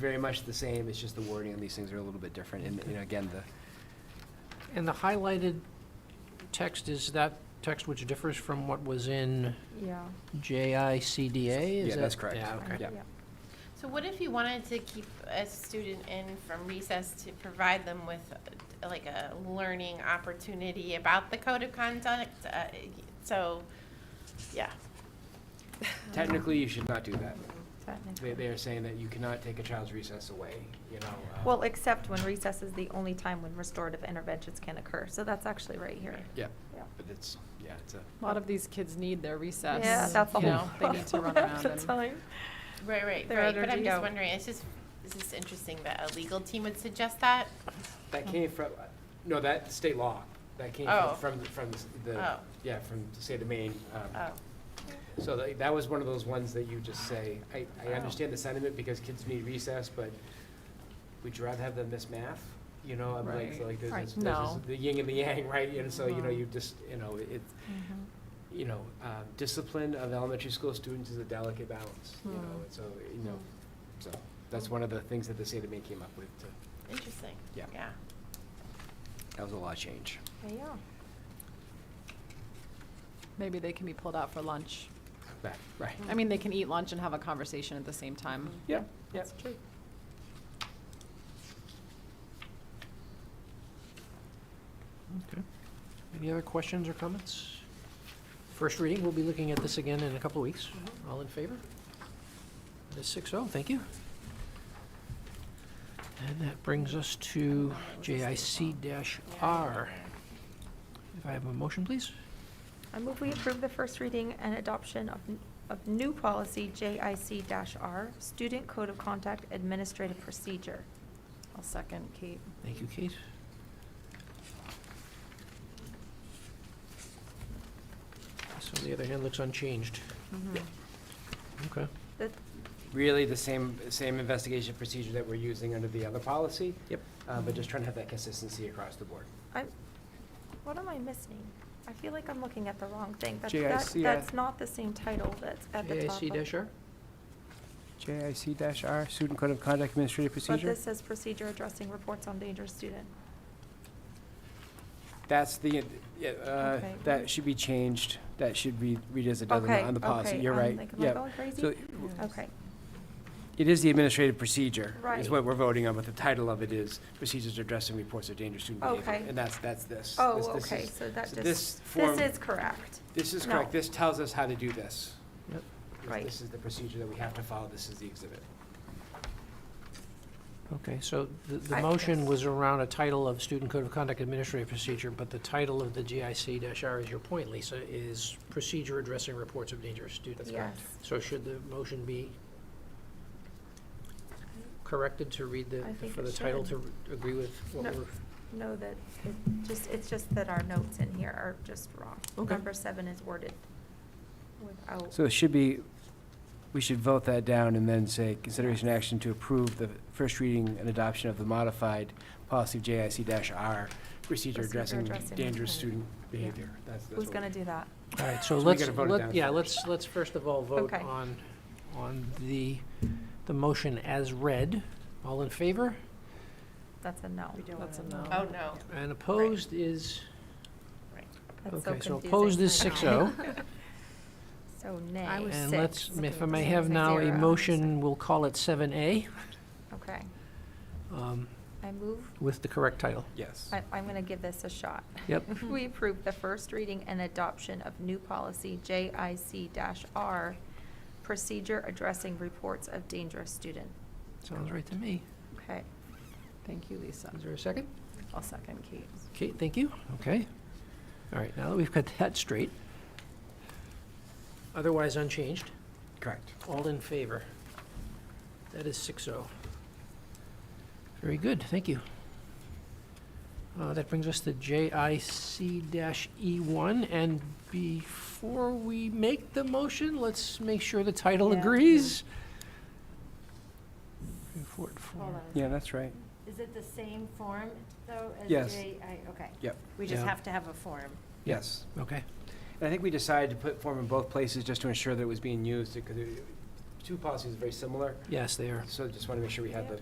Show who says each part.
Speaker 1: very much the same, it's just the wording on these things are a little bit different, and, you know, again, the,
Speaker 2: And the highlighted text, is that text which differs from what was in
Speaker 3: Yeah.
Speaker 2: JICDA? Is
Speaker 1: Yeah, that's
Speaker 2: that-
Speaker 1: correct.
Speaker 2: Yeah, okay.
Speaker 1: Yeah.
Speaker 4: So what if you wanted to keep a student in from recess to provide them with uh, like a learning opportunity about the code of conduct? Uh, So, yeah.
Speaker 1: technically, you should not do that. They,
Speaker 3: Technically.
Speaker 1: they are saying that you cannot take a child's recess away, you know. uh,
Speaker 3: Well, except when recess is the only time when restorative interventions can occur, so that's actually right here.
Speaker 1: Yeah,
Speaker 3: Yeah.
Speaker 1: but it's, yeah, it's a.
Speaker 5: A lot of these kids need their recess.
Speaker 3: Yeah, that's the
Speaker 5: You
Speaker 3: whole
Speaker 5: know, they need to run
Speaker 3: problem.
Speaker 5: around
Speaker 3: That's
Speaker 5: and.
Speaker 3: all you-
Speaker 4: Right, right,
Speaker 3: They're
Speaker 4: right.
Speaker 3: under
Speaker 4: But I'm just
Speaker 3: DO.
Speaker 4: wondering, it's just, it's just interesting that a legal team would suggest that?
Speaker 1: That came from, no, that state law, that came
Speaker 4: Oh.
Speaker 1: from, from, from the,
Speaker 4: Oh.
Speaker 1: yeah, from the state of Maine. um,
Speaker 4: Oh,
Speaker 1: So that, that was one of those ones that you just say, I, I
Speaker 4: Oh.
Speaker 1: understand the sentiment because kids need recess, but would you rather have them miss math? You know, I'm like, so
Speaker 5: Right.
Speaker 1: like, there's,
Speaker 5: Right.
Speaker 1: this- there's this-
Speaker 5: No.
Speaker 1: the yin and the yang, right? And so, you know,
Speaker 5: Mhm.
Speaker 1: you just, you know, it, you know, um, discipline of elementary school students is a delicate balance, you know,
Speaker 5: Hmm.
Speaker 1: and so, you know,
Speaker 3: Hmm.
Speaker 1: so, that's one of the things that the state of Maine came up with, to-
Speaker 4: interesting.
Speaker 1: Yeah.
Speaker 4: Yeah.
Speaker 1: that was a law change.
Speaker 3: Yeah.
Speaker 5: Maybe they can be pulled out for lunch.
Speaker 1: Back, right.
Speaker 3: Hmm.
Speaker 5: I mean, they can eat lunch and have a conversation at the same time.
Speaker 1: Yep, yep.
Speaker 5: true.
Speaker 2: Any other questions or comments? First reading, we'll be looking at this again in a couple of weeks. All in favor? That's six oh, thank you. And that brings us to JIC R. If I have a motion, please?
Speaker 3: I move we approve the first reading and adoption of, n- of new policy JIC R, Student Code of Conduct Administrative Procedure.
Speaker 5: I'll second Kate.
Speaker 2: Thank you, Kate. This, on the other hand, looks unchanged.
Speaker 3: Mm-hmm.
Speaker 2: Okay.
Speaker 3: That,
Speaker 1: really the same, same investigation procedure that we're using under the other policy.
Speaker 2: Yep.
Speaker 1: Uh, but just trying to have that consistency across the board.
Speaker 3: I'm, what am I missing? I feel like I'm looking at the wrong thing. That's- that-
Speaker 6: JIC, uh,
Speaker 3: That's not the same title that's at the top.
Speaker 2: JIC
Speaker 3: of-
Speaker 2: dash R?
Speaker 1: JIC-R, Student Code of Conduct Administrative
Speaker 3: But
Speaker 1: Procedure.
Speaker 3: this says procedure addressing reports on dangerous student.
Speaker 1: That's the, yeah, uh,
Speaker 3: Okay.
Speaker 1: that should be changed. That should be read as a dozen
Speaker 3: Okay,
Speaker 1: on the policy.
Speaker 3: okay,
Speaker 1: You're
Speaker 3: I'm
Speaker 1: right.
Speaker 3: like, am I
Speaker 1: Yeah.
Speaker 3: going crazy?
Speaker 1: So
Speaker 3: Okay,
Speaker 1: it is the administrative procedure
Speaker 3: Right.
Speaker 1: is what we're voting on, but the title of it is Procedures Addressing Reports of Dangerous Student Behavior.
Speaker 3: Okay.
Speaker 1: And that's, that's this. This-
Speaker 3: oh,
Speaker 1: this
Speaker 3: okay,
Speaker 1: is-
Speaker 3: so that
Speaker 1: so
Speaker 3: just,
Speaker 1: This form,
Speaker 3: this is correct.
Speaker 1: this is
Speaker 3: no.
Speaker 1: correct. This tells us how to do this.
Speaker 2: Yep.
Speaker 1: This-
Speaker 3: Right.
Speaker 1: This is the procedure that we have to follow. This is the exhibit.
Speaker 2: Okay, so the, the
Speaker 3: I-
Speaker 2: motion was around a title of Student Code of Conduct Administrative Procedure, but the title of the GIC dash R is your point, Lisa, is Procedure Addressing Reports of Dangerous Students.
Speaker 3: Yes,
Speaker 2: So should the motion be corrected to read the,
Speaker 3: I think
Speaker 2: for
Speaker 3: it
Speaker 2: the title to
Speaker 3: should.
Speaker 2: agree with what
Speaker 3: No.
Speaker 2: we're?
Speaker 3: no, that, it just, it's just that our notes in here are just wrong.
Speaker 2: Okay.
Speaker 3: Number seven is worded without,
Speaker 6: So it should be, we should vote that down and then say, consideration action to approve the first reading and adoption of the modified policy of JIC R, procedure
Speaker 3: Procedure
Speaker 6: addressing
Speaker 3: addressing-
Speaker 6: dangerous student behavior. That's, that's
Speaker 3: who's
Speaker 6: what
Speaker 3: gonna
Speaker 6: we-
Speaker 3: do that?
Speaker 2: All right, so
Speaker 1: So we
Speaker 2: let's,
Speaker 1: gotta vote it
Speaker 2: let-
Speaker 1: down
Speaker 2: yeah,
Speaker 1: first.
Speaker 2: let's, let's first of all vote
Speaker 3: Okay.
Speaker 2: on, on the, the motion as read. All in favor?
Speaker 3: That's a no.
Speaker 5: That's a no.
Speaker 4: Oh, no.
Speaker 2: And opposed is,
Speaker 3: That's so
Speaker 2: okay, so
Speaker 3: confusing.
Speaker 2: opposed is six oh.
Speaker 3: So nay.
Speaker 5: I was
Speaker 2: And
Speaker 5: six.
Speaker 2: let's, if I may
Speaker 3: Six,
Speaker 2: have now a
Speaker 3: zero.
Speaker 2: motion, we'll call it seven A,
Speaker 3: Okay,
Speaker 2: um,
Speaker 3: I move,
Speaker 2: with the correct title.
Speaker 1: Yes.
Speaker 3: I, I'm gonna give this a shot.
Speaker 2: Yep.
Speaker 3: We approve the first reading and adoption of new policy JIC R, procedure addressing reports of dangerous student.
Speaker 2: Sounds right to me.
Speaker 3: Okay,
Speaker 5: Thank you, Lisa.
Speaker 2: Is there a second?
Speaker 5: I'll second Kate.
Speaker 2: Kate, thank you. Okay. All right, now that we've got that straight. Otherwise unchanged.
Speaker 1: Correct.
Speaker 2: All in favor? That is six oh. Very good, thank you. Uh, That brings us to JIC E one, and before we make the motion, let's make sure the title
Speaker 3: Yeah.
Speaker 2: agrees. Three, four, four.
Speaker 7: Hold on.
Speaker 6: Yeah, that's right.
Speaker 7: Is it the same form, though, as
Speaker 1: Yes.
Speaker 7: J I, okay.
Speaker 1: Yep.
Speaker 7: We just
Speaker 2: Yeah.
Speaker 7: have to have a form.
Speaker 1: Yes.
Speaker 2: Okay,
Speaker 1: And I think we decided to put form in both places just to ensure that it was being used, because two policies are very similar,
Speaker 2: Yes, they are.
Speaker 1: so just want to make sure we have the